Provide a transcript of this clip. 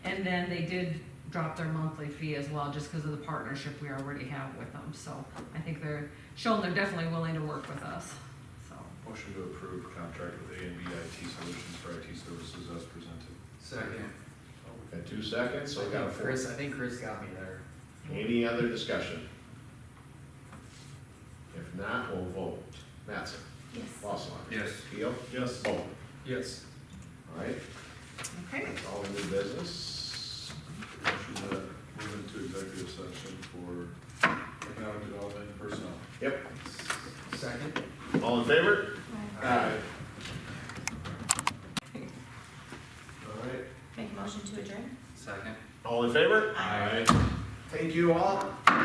And then they did drop their monthly fee as well, just because of the partnership we already have with them. So I think they're showing they're definitely willing to work with us, so. Motion to approve contract with A and B IT Solutions for IT services as presented. Second. Got two seconds, so we got a four. Chris, I think Chris got me there. Any other discussion? If not, we'll vote. Mattson? Yes. Walsall? Yes. Keel? Yes. Vote. Yes. All right, Okay. that's all new business. Motion to move into executive session for economic development and personnel. Yep, Second? all in favor? Aye. All right, Make a motion to adjourn? Second. all in favor? Aye. Thank you all.